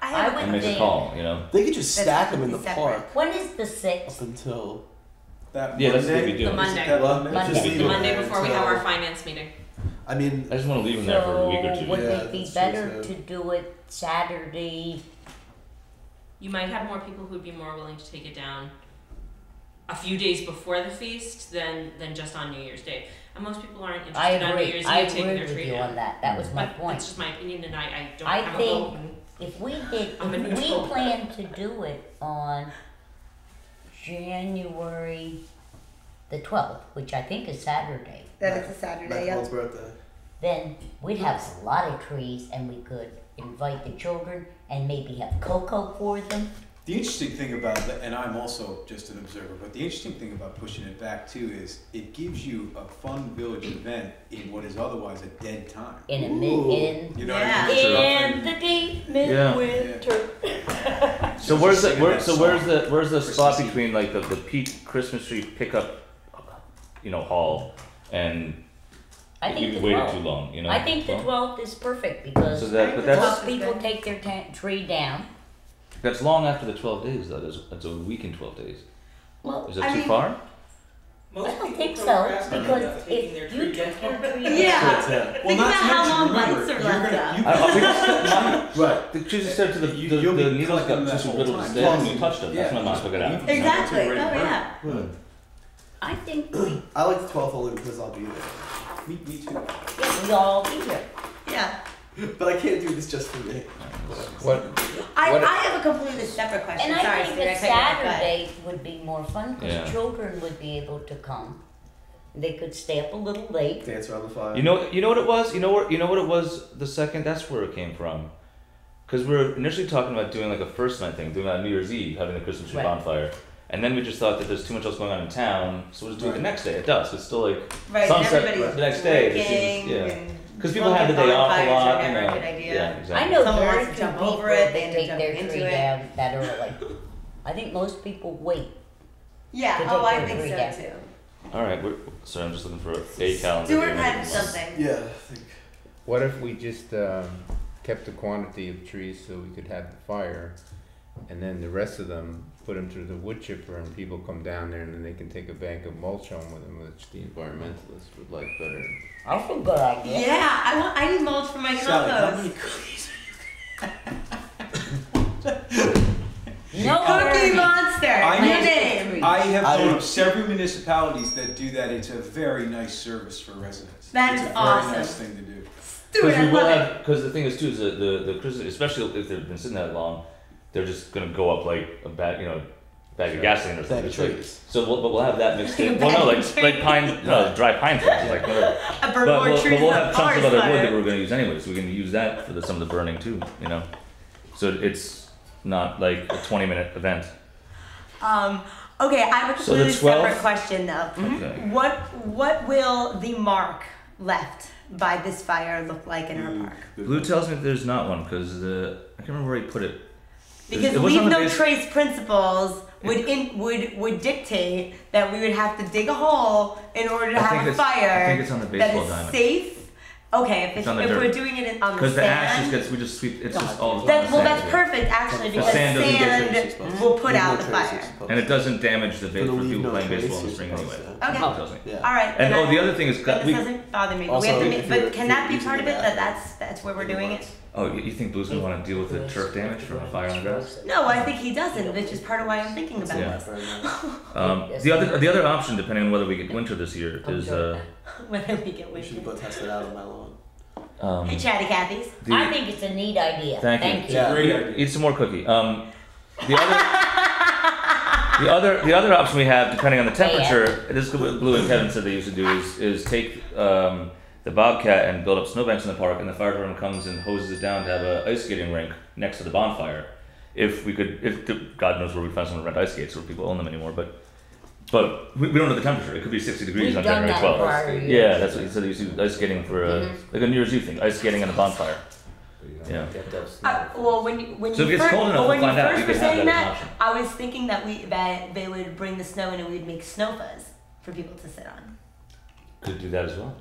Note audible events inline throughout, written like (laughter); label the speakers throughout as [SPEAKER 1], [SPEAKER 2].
[SPEAKER 1] have one
[SPEAKER 2] I would
[SPEAKER 3] and make
[SPEAKER 1] thing.
[SPEAKER 3] a call. You know.
[SPEAKER 4] They could just
[SPEAKER 1] that's
[SPEAKER 4] stack them in the
[SPEAKER 1] completely
[SPEAKER 4] park
[SPEAKER 1] separate. When is the
[SPEAKER 4] up
[SPEAKER 1] sixth?
[SPEAKER 4] until
[SPEAKER 5] That
[SPEAKER 3] Yeah, that's what we
[SPEAKER 5] Monday.
[SPEAKER 3] do.
[SPEAKER 2] The Monday.
[SPEAKER 5] That Monday. Just
[SPEAKER 2] Monday,
[SPEAKER 3] Monday.
[SPEAKER 5] leave
[SPEAKER 2] the
[SPEAKER 5] it
[SPEAKER 2] Monday
[SPEAKER 5] there
[SPEAKER 2] before we have
[SPEAKER 5] until-
[SPEAKER 2] our finance meeting.
[SPEAKER 4] I mean
[SPEAKER 3] I just want to leave them there for a week or
[SPEAKER 1] So
[SPEAKER 3] two.
[SPEAKER 1] would
[SPEAKER 4] Yeah,
[SPEAKER 1] it be
[SPEAKER 4] that's true,
[SPEAKER 1] better
[SPEAKER 4] so-
[SPEAKER 1] to do it Saturday?
[SPEAKER 2] You might have more people who'd be more willing to take it down a few days before the feast than than just on New Year's Day. And most people aren't interested
[SPEAKER 1] I
[SPEAKER 2] on New
[SPEAKER 1] agree.
[SPEAKER 2] Year's
[SPEAKER 1] I
[SPEAKER 2] Eve taking
[SPEAKER 1] agree
[SPEAKER 2] their
[SPEAKER 1] with
[SPEAKER 2] tree
[SPEAKER 1] you
[SPEAKER 2] down.
[SPEAKER 1] on that. That was my
[SPEAKER 2] But that's
[SPEAKER 1] point.
[SPEAKER 2] just my opinion, and I, I don't.
[SPEAKER 1] I
[SPEAKER 2] I'm a
[SPEAKER 1] think-
[SPEAKER 2] vote and-
[SPEAKER 1] If we did,
[SPEAKER 2] I'm a
[SPEAKER 1] if
[SPEAKER 2] neutral.
[SPEAKER 1] we plan to do it on January the twelfth, which I think is Saturday,
[SPEAKER 4] That
[SPEAKER 6] That
[SPEAKER 4] is
[SPEAKER 6] is a
[SPEAKER 4] Matt
[SPEAKER 6] Saturday,
[SPEAKER 4] Hall's
[SPEAKER 6] yeah.
[SPEAKER 4] birthday.
[SPEAKER 1] then we'd have a lot of trees and we could invite the children and maybe have cocoa for them.
[SPEAKER 5] The interesting thing about that, and I'm also just an observer, but the interesting thing about pushing it back too is it gives you a fun village event in what is otherwise a dead time.
[SPEAKER 1] In a mid
[SPEAKER 4] Ooh.
[SPEAKER 1] in
[SPEAKER 5] You know
[SPEAKER 2] Yeah.
[SPEAKER 5] what I mean?
[SPEAKER 1] in the deep midwinter.
[SPEAKER 3] (laughs) So where's the where, so where's the where's the spot
[SPEAKER 5] Christmas Eve.
[SPEAKER 3] between like the, the peak Christmas tree pickup, you know, haul, and
[SPEAKER 1] I think
[SPEAKER 3] you
[SPEAKER 1] the
[SPEAKER 3] waited too
[SPEAKER 1] twelfth.
[SPEAKER 3] long, you know.
[SPEAKER 1] I think the
[SPEAKER 3] Well,
[SPEAKER 1] twelfth is perfect because
[SPEAKER 3] So that but
[SPEAKER 6] the
[SPEAKER 3] that's
[SPEAKER 6] 12th
[SPEAKER 1] twelve people take their ta- tree down.
[SPEAKER 3] that's long after the twelve days though. That's, that's a week and twelve days.
[SPEAKER 1] Well,
[SPEAKER 3] Is it
[SPEAKER 6] I
[SPEAKER 3] too
[SPEAKER 6] mean-
[SPEAKER 3] far?
[SPEAKER 1] I don't think so because if you took your
[SPEAKER 6] (laughs)
[SPEAKER 1] tree
[SPEAKER 6] Yeah.
[SPEAKER 4] Yeah.
[SPEAKER 5] Well,
[SPEAKER 6] Think about
[SPEAKER 5] not to
[SPEAKER 6] how
[SPEAKER 5] mention,
[SPEAKER 6] long
[SPEAKER 5] remember,
[SPEAKER 6] months are
[SPEAKER 5] you're
[SPEAKER 6] left
[SPEAKER 5] gonna-
[SPEAKER 6] up.
[SPEAKER 5] you-
[SPEAKER 3] I, I, we just,
[SPEAKER 4] Right.
[SPEAKER 3] the trees just said to the the,
[SPEAKER 5] You-
[SPEAKER 3] the,
[SPEAKER 5] you'll be
[SPEAKER 3] needles
[SPEAKER 5] collecting
[SPEAKER 3] got
[SPEAKER 5] that
[SPEAKER 3] just
[SPEAKER 5] whole
[SPEAKER 3] riddled
[SPEAKER 5] time.
[SPEAKER 3] with dead when you touched them. That's
[SPEAKER 5] Yeah.
[SPEAKER 3] when mom took it out.
[SPEAKER 5] Yeah.
[SPEAKER 6] Exactly. Oh
[SPEAKER 5] Ready to
[SPEAKER 6] yeah.
[SPEAKER 4] Hmm.
[SPEAKER 1] I think we,
[SPEAKER 4] I like the 12th only because I'll be there. (laughs)
[SPEAKER 5] Me, me too.
[SPEAKER 1] yeah, we all be here.
[SPEAKER 6] Yeah.
[SPEAKER 4] But I can't do this just for me.
[SPEAKER 7] What?
[SPEAKER 6] I,
[SPEAKER 7] What-
[SPEAKER 6] I have a completely separate question.
[SPEAKER 1] And I
[SPEAKER 6] Sorry,
[SPEAKER 1] think
[SPEAKER 6] Steve,
[SPEAKER 1] a
[SPEAKER 6] cut you off, but-
[SPEAKER 1] Saturday would be more fun
[SPEAKER 3] Yeah.
[SPEAKER 1] because children would be able to come. They could stay up a little late.
[SPEAKER 4] Dance around the fire.
[SPEAKER 3] You know, you know what it was. You know where, you know what it was. The second, that's where it came from, because we were initially talking about doing like a first night thing, doing that on New Year's Eve, having the Christmas tree
[SPEAKER 1] Right.
[SPEAKER 3] bonfire, and then we just thought that there's too much else going on in town, so we'll just do it
[SPEAKER 5] Right.
[SPEAKER 3] the next day. It does. It's still like
[SPEAKER 6] Right,
[SPEAKER 3] sunset
[SPEAKER 6] everybody's
[SPEAKER 3] the next day. It
[SPEAKER 6] working
[SPEAKER 3] seems- yeah,
[SPEAKER 6] and
[SPEAKER 3] because people have the day
[SPEAKER 6] smoking
[SPEAKER 3] off a
[SPEAKER 6] bonfires are
[SPEAKER 3] lot. You
[SPEAKER 6] never a
[SPEAKER 3] know.
[SPEAKER 6] good idea.
[SPEAKER 3] Yeah,
[SPEAKER 1] I
[SPEAKER 3] exactly.
[SPEAKER 1] know
[SPEAKER 6] Someone
[SPEAKER 1] very
[SPEAKER 6] wants to
[SPEAKER 1] few
[SPEAKER 6] jump
[SPEAKER 1] people
[SPEAKER 6] over it,
[SPEAKER 1] that
[SPEAKER 6] they end
[SPEAKER 1] take
[SPEAKER 6] up
[SPEAKER 1] their
[SPEAKER 6] jumping
[SPEAKER 1] tree
[SPEAKER 6] into it.
[SPEAKER 1] down that early. I think most people wait.
[SPEAKER 6] Yeah,
[SPEAKER 1] They
[SPEAKER 6] oh,
[SPEAKER 1] did
[SPEAKER 6] I
[SPEAKER 1] put
[SPEAKER 6] think
[SPEAKER 1] it
[SPEAKER 6] so
[SPEAKER 1] there.
[SPEAKER 6] too.
[SPEAKER 3] All right, we're, sorry, I'm just looking for a calendar.
[SPEAKER 6] Stuart
[SPEAKER 3] here.
[SPEAKER 6] had something.
[SPEAKER 4] Yeah, I think.
[SPEAKER 7] What if we just um, kept the quantity of trees so we could have the fire, and then the rest of them put them through the wood chipper, and people come down there, and then they can take a bank of mulch home with them, which the environmentalists would like better.
[SPEAKER 1] That's a good idea.
[SPEAKER 6] Yeah, I want, I need mulch for my
[SPEAKER 5] Sally, how many
[SPEAKER 6] compost.
[SPEAKER 5] cookies?
[SPEAKER 1] No
[SPEAKER 6] Cookie
[SPEAKER 1] hurry.
[SPEAKER 6] Monster,
[SPEAKER 5] I
[SPEAKER 6] your
[SPEAKER 5] need-
[SPEAKER 6] name.
[SPEAKER 5] I have
[SPEAKER 4] I-
[SPEAKER 5] known of several municipalities that do that. It's a very nice service for residents.
[SPEAKER 6] That
[SPEAKER 5] It's
[SPEAKER 6] is
[SPEAKER 5] a
[SPEAKER 6] awesome.
[SPEAKER 5] Very nice thing to do.
[SPEAKER 6] Stuart,
[SPEAKER 3] we
[SPEAKER 6] I
[SPEAKER 3] will
[SPEAKER 6] love it.
[SPEAKER 3] have because the thing is too is the the, the Christmas, especially if they've been sitting that long, they're just gonna go up like a bag, you know, bag of gasoline or
[SPEAKER 4] Bag
[SPEAKER 3] something.
[SPEAKER 4] of
[SPEAKER 3] It's like-
[SPEAKER 4] trees.
[SPEAKER 3] So we'll, but we'll have that mixed
[SPEAKER 6] (laughs)
[SPEAKER 3] in.
[SPEAKER 6] Bag
[SPEAKER 3] Well, no,
[SPEAKER 6] of
[SPEAKER 3] like like pine, no, dry pine trees,
[SPEAKER 6] (laughs)
[SPEAKER 3] like whatever.
[SPEAKER 6] A
[SPEAKER 3] But
[SPEAKER 6] bird
[SPEAKER 3] we'll,
[SPEAKER 6] more
[SPEAKER 3] but
[SPEAKER 6] trees
[SPEAKER 3] we'll
[SPEAKER 6] than
[SPEAKER 3] have chunks of other
[SPEAKER 6] forest
[SPEAKER 3] wood
[SPEAKER 6] fire.
[SPEAKER 3] that we're gonna use anyway, so we can use that for the, some of the burning too, you know. So it's not like a twenty minute event.
[SPEAKER 6] Um, okay, I have a
[SPEAKER 3] So the
[SPEAKER 6] completely
[SPEAKER 3] 12th?
[SPEAKER 6] separate question though. Mm-hmm.
[SPEAKER 3] Okay.
[SPEAKER 6] What what will the mark left by this fire look like in
[SPEAKER 3] Mm.
[SPEAKER 6] our park?
[SPEAKER 3] Blue tells me that there's not one because the I can't remember where he put it.
[SPEAKER 6] Because
[SPEAKER 3] it was
[SPEAKER 6] leave
[SPEAKER 3] on the
[SPEAKER 6] no
[SPEAKER 3] base-
[SPEAKER 6] trace principles would in, would would dictate that we would have to dig a hole in order to
[SPEAKER 3] I
[SPEAKER 6] have
[SPEAKER 3] think
[SPEAKER 6] a
[SPEAKER 3] it's-
[SPEAKER 6] fire
[SPEAKER 3] I think it's on the
[SPEAKER 6] that
[SPEAKER 3] baseball
[SPEAKER 6] is
[SPEAKER 3] diamond.
[SPEAKER 6] safe. Okay, if,
[SPEAKER 3] It's
[SPEAKER 6] it's,
[SPEAKER 3] on the
[SPEAKER 6] if we're
[SPEAKER 3] dirt.
[SPEAKER 6] doing it in, on the
[SPEAKER 3] Because
[SPEAKER 6] sand,
[SPEAKER 3] the ash just gets we just sweep it's just all
[SPEAKER 6] then, well,
[SPEAKER 3] sand.
[SPEAKER 6] that's perfect actually
[SPEAKER 4] The
[SPEAKER 6] because
[SPEAKER 3] sand doesn't get
[SPEAKER 6] sand,
[SPEAKER 4] traces, but-
[SPEAKER 6] will put
[SPEAKER 4] Leave
[SPEAKER 6] out
[SPEAKER 4] no
[SPEAKER 6] the
[SPEAKER 4] traces,
[SPEAKER 6] fire.
[SPEAKER 4] it's supposed
[SPEAKER 3] And
[SPEAKER 4] to.
[SPEAKER 3] it doesn't damage the base for
[SPEAKER 4] Gonna leave
[SPEAKER 3] people
[SPEAKER 4] no
[SPEAKER 3] playing baseball in the
[SPEAKER 4] traces,
[SPEAKER 3] spring
[SPEAKER 4] it's
[SPEAKER 3] anyway.
[SPEAKER 4] supposed
[SPEAKER 6] Okay.
[SPEAKER 3] It doesn't.
[SPEAKER 4] Yeah.
[SPEAKER 6] All right.
[SPEAKER 3] And
[SPEAKER 6] then
[SPEAKER 3] oh,
[SPEAKER 6] I-
[SPEAKER 3] the other thing is,
[SPEAKER 6] But
[SPEAKER 3] got-
[SPEAKER 6] this
[SPEAKER 3] we,
[SPEAKER 6] doesn't bother me.
[SPEAKER 4] Also,
[SPEAKER 6] we have to
[SPEAKER 4] if
[SPEAKER 6] make,
[SPEAKER 4] you're-
[SPEAKER 6] but
[SPEAKER 4] if
[SPEAKER 6] can
[SPEAKER 4] you're
[SPEAKER 6] that be
[SPEAKER 4] using
[SPEAKER 6] part of
[SPEAKER 4] the
[SPEAKER 6] it? That
[SPEAKER 4] bathroom.
[SPEAKER 6] that's that's where we're doing it.
[SPEAKER 3] oh, you you think Blue's gonna want to deal with the turf damage from a fire on the grass?
[SPEAKER 6] No, I think he doesn't, which is part of why I'm thinking about
[SPEAKER 3] Yeah.
[SPEAKER 6] this. (laughs)
[SPEAKER 4] Very nice.
[SPEAKER 3] Um, the other the other option, depending on whether we get winter this year, is uh,
[SPEAKER 6] Whether we get
[SPEAKER 4] We should
[SPEAKER 6] winded.
[SPEAKER 4] go test it out on my lawn.
[SPEAKER 3] um,
[SPEAKER 6] Hey, Chatty Cathy's.
[SPEAKER 1] I
[SPEAKER 3] the,
[SPEAKER 1] think it's a neat idea.
[SPEAKER 3] Thank you.
[SPEAKER 1] Thank you.
[SPEAKER 4] Yeah.
[SPEAKER 5] Great idea.
[SPEAKER 3] eat some more cookie. Um, the other. The other, the other option we have, depending on the temperature, this is what Blue and Kevin said they used to do, is, is take um, the Bobcat and build up snowbanks in the park, and the fire department comes and hoses it down to have a ice skating rink next to the bonfire. If we could, if God knows where we find someone to rent ice skates, where people own them anymore, but but we, we don't know the temperature. It could be 60 degrees
[SPEAKER 1] We've
[SPEAKER 3] on
[SPEAKER 1] done
[SPEAKER 3] January
[SPEAKER 1] that
[SPEAKER 3] 12th.
[SPEAKER 1] prior years.
[SPEAKER 3] Yeah, that's what you said. You used to do ice skating for uh, like a New Year's Eve thing, ice skating on the bonfire. Yeah.
[SPEAKER 6] Uh, well, when you, when
[SPEAKER 3] So if
[SPEAKER 6] you
[SPEAKER 3] it's
[SPEAKER 6] first,
[SPEAKER 3] cold
[SPEAKER 6] well,
[SPEAKER 3] enough,
[SPEAKER 6] when
[SPEAKER 3] we'll
[SPEAKER 6] you
[SPEAKER 3] find out.
[SPEAKER 6] first
[SPEAKER 3] We
[SPEAKER 6] were
[SPEAKER 3] can have
[SPEAKER 6] saying
[SPEAKER 3] that as an
[SPEAKER 6] that,
[SPEAKER 3] option.
[SPEAKER 6] I was thinking that we that they would bring the snow in and we'd make snow fuzz for people to sit on.
[SPEAKER 3] Could do that as well.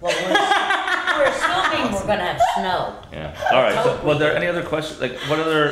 [SPEAKER 1] Well, we're, we're assuming we're gonna have snow.
[SPEAKER 3] Yeah. All right. So, well, are there any other questions? Like, what other